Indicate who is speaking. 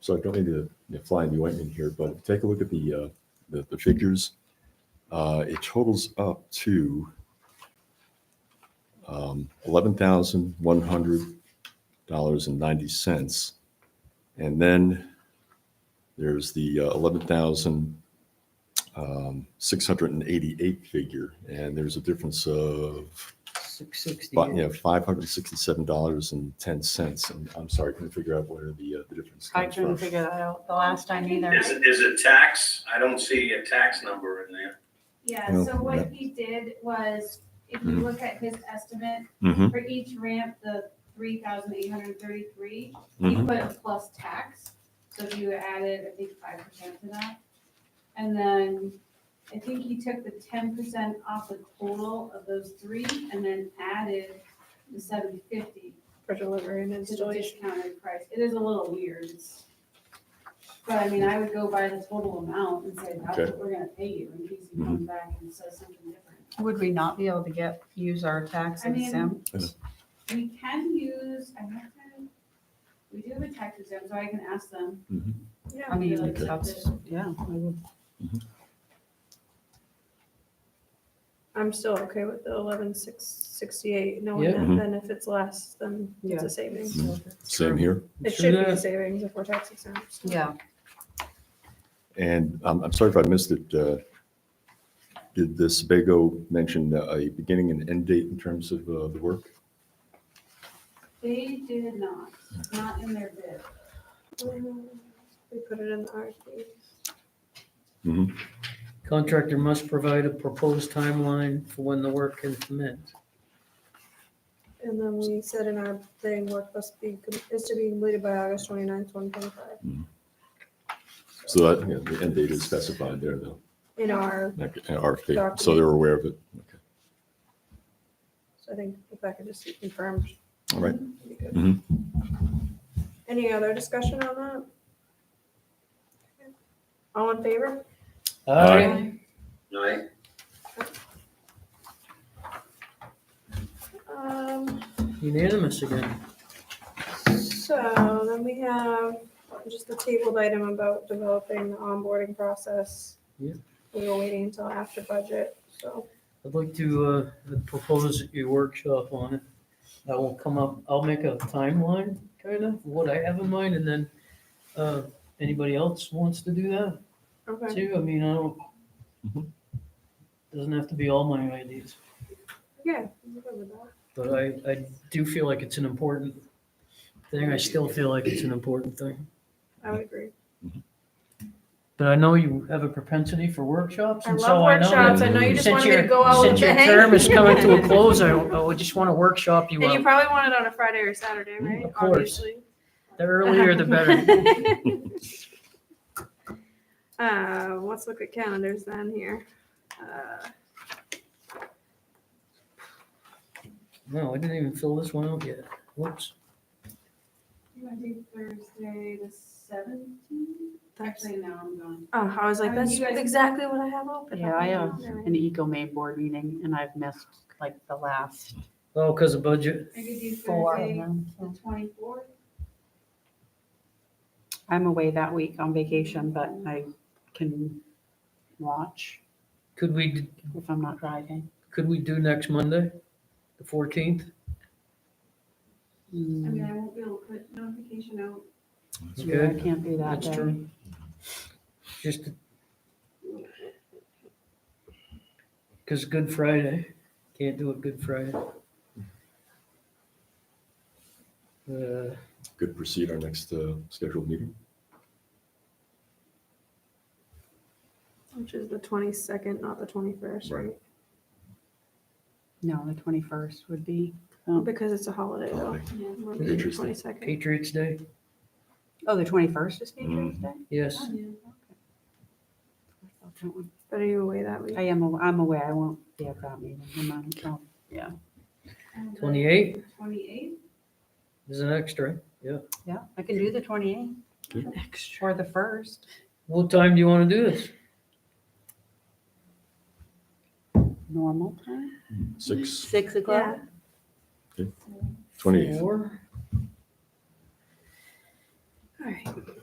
Speaker 1: so I don't need to you know, fly in the ointment here, but if you take a look at the, uh, the, the figures. Uh, it totals up to um, eleven thousand one hundred dollars and ninety cents. And then there's the uh, eleven thousand um, six hundred and eighty-eight figure, and there's a difference of
Speaker 2: Six sixty.
Speaker 1: but, you know, five hundred sixty-seven dollars and ten cents, and I'm sorry, couldn't figure out where the, uh, the difference
Speaker 3: I
Speaker 1: comes
Speaker 3: couldn't
Speaker 1: from.
Speaker 3: figure that out the last time either.
Speaker 4: Is, it- is it tax? I don't see a tax number in there.
Speaker 5: Yeah,
Speaker 1: Well,
Speaker 5: so
Speaker 1: yeah.
Speaker 5: what he did was, if you
Speaker 1: Mhm.
Speaker 5: look at his estimate,
Speaker 1: Mm-hmm,
Speaker 5: for each ramp, the three thousand eight hundred thirty-three, he
Speaker 1: mm-hmm,
Speaker 5: put a plus tax, so if you added, I think, five percent to that. And then, I think he took the ten percent off the total of those three, and then added the seven fifty
Speaker 6: for delivery and
Speaker 5: to the
Speaker 6: installation.
Speaker 5: discounted price. It is a little weird, it's- but I mean, I would go by the total amount and say, that's
Speaker 1: Okay.
Speaker 5: what we're gonna pay you, in case you come back and says something different.
Speaker 3: Would we not be able to get, use our tax
Speaker 5: I mean-
Speaker 3: exempt?
Speaker 5: We can use, I have to, we do have a tax exempt, so I can ask them.
Speaker 1: Mm-hmm.
Speaker 3: I mean,
Speaker 5: Like,
Speaker 3: that's, yeah. I would-
Speaker 6: I'm still okay with the eleven six sixty-eight, knowing
Speaker 2: Yeah. Mm-hmm.
Speaker 1: Mhm.
Speaker 6: that then if it's less, then it's
Speaker 2: Yeah.
Speaker 6: a savings.
Speaker 1: same here,
Speaker 2: True
Speaker 6: It should be a
Speaker 2: Mm-hmm. that.
Speaker 6: savings if we're tax exempt.
Speaker 3: Yeah,
Speaker 1: and I'm, I'm sorry if I missed it, uh, did the Sebago mention uh, a beginning and end date in terms of, uh, the work?
Speaker 5: They did not, not in their bid.
Speaker 6: Um, We put it in the RFP.
Speaker 2: Contractor must provide a proposed timeline for when the work can commence.
Speaker 6: And then we said in our thing, work must be, com- is to be completed by August twenty-ninth, twenty twenty-five,
Speaker 1: So that, you know, the end date is specified there, though,
Speaker 6: in our,
Speaker 1: like, uh, RFP, so they're aware of it, okay,
Speaker 6: so I think if I could just be confirmed.
Speaker 1: all right.
Speaker 6: it'd be good.
Speaker 2: Mm-hmm.
Speaker 1: Mhm.
Speaker 6: Any other discussion on that? All in favor?
Speaker 1: Aye.
Speaker 4: Right?
Speaker 6: Um,
Speaker 2: Unanimous again.
Speaker 6: So then we have just the tabled item about developing the onboarding process.
Speaker 2: Yeah.
Speaker 6: We were waiting until after budget, so
Speaker 2: I'd like to uh, propose a workshop on it. I will come up, I'll make a timeline, kind of, what I have in mind, and then uh, anybody else wants to do that
Speaker 6: okay.
Speaker 2: too? I mean, I don't,
Speaker 1: Mhm.
Speaker 2: doesn't have to be all my ideas,
Speaker 6: Yeah. I'm good with that.
Speaker 2: but I, I do feel like it's an important thing. I still feel like it's an important thing.
Speaker 6: I would agree.
Speaker 2: But I know you have a propensity for workshops,
Speaker 6: I
Speaker 2: and
Speaker 6: love
Speaker 2: so I know.
Speaker 6: workshops. I know you just
Speaker 2: Since
Speaker 6: wanted me to
Speaker 2: your-
Speaker 6: go out with
Speaker 2: Since
Speaker 6: the
Speaker 2: your
Speaker 6: hang.
Speaker 2: term is coming to a close, I, I just want to workshop you
Speaker 6: And you
Speaker 2: up. Mm,
Speaker 6: probably want it on a Friday or Saturday, right?
Speaker 2: of course.
Speaker 6: Obviously.
Speaker 2: The earlier the better.
Speaker 6: Uh, let's look at calendars then here. Uh,
Speaker 2: No, I didn't even fill this one out yet. Whoops.
Speaker 5: You want to do Thursday the seventeenth?
Speaker 6: that's-
Speaker 5: Actually, no, I'm gone.
Speaker 6: Oh, I was like,
Speaker 5: I mean,
Speaker 6: that's
Speaker 5: you guys-
Speaker 6: exactly what I have open.
Speaker 7: Yeah, I have
Speaker 6: Never mind.
Speaker 7: an eco main board meeting and I've missed like the last
Speaker 2: Oh, because of budget.
Speaker 5: I could do
Speaker 7: four of
Speaker 5: Thursday
Speaker 7: them.
Speaker 5: the twenty-fourth.
Speaker 7: I'm away that week on vacation, but
Speaker 5: Mm.
Speaker 7: I can watch
Speaker 2: Could we,
Speaker 7: if I'm not driving.
Speaker 2: could we do next Monday, the fourteenth?
Speaker 5: I mean,
Speaker 7: Mm,
Speaker 5: I won't be able to put notification out.
Speaker 7: yeah, I can't do that
Speaker 2: That's
Speaker 7: day.
Speaker 2: true. Just because Good Friday, can't do it Good Friday. Uh,
Speaker 1: Good, proceed our next, uh, scheduled meeting,
Speaker 6: Which is the twenty-second, not the twenty-first,
Speaker 1: Right.
Speaker 6: right?
Speaker 7: No, the twenty-first would be,
Speaker 6: Because it's a holiday though.
Speaker 1: holiday.
Speaker 5: Yeah.
Speaker 1: Interesting.
Speaker 6: Twenty-second.
Speaker 2: Patriots Day,
Speaker 7: oh, the twenty-first is
Speaker 1: Mm.
Speaker 7: Patriots Day?
Speaker 2: yes.
Speaker 7: That one.
Speaker 6: But are you away that week?
Speaker 7: I am, aw- I'm away. I won't be at that meeting. I'm not in town.
Speaker 5: And the
Speaker 2: Twenty-eighth
Speaker 5: 28th?
Speaker 2: is an extra.
Speaker 7: Yeah, I can do the twenty-eighth. Extra. Or the first.
Speaker 2: What time do you want to do this?
Speaker 7: Normal time?
Speaker 1: six,
Speaker 7: Six o'clock?
Speaker 1: twenty-eighth.
Speaker 2: Four?
Speaker 6: All right.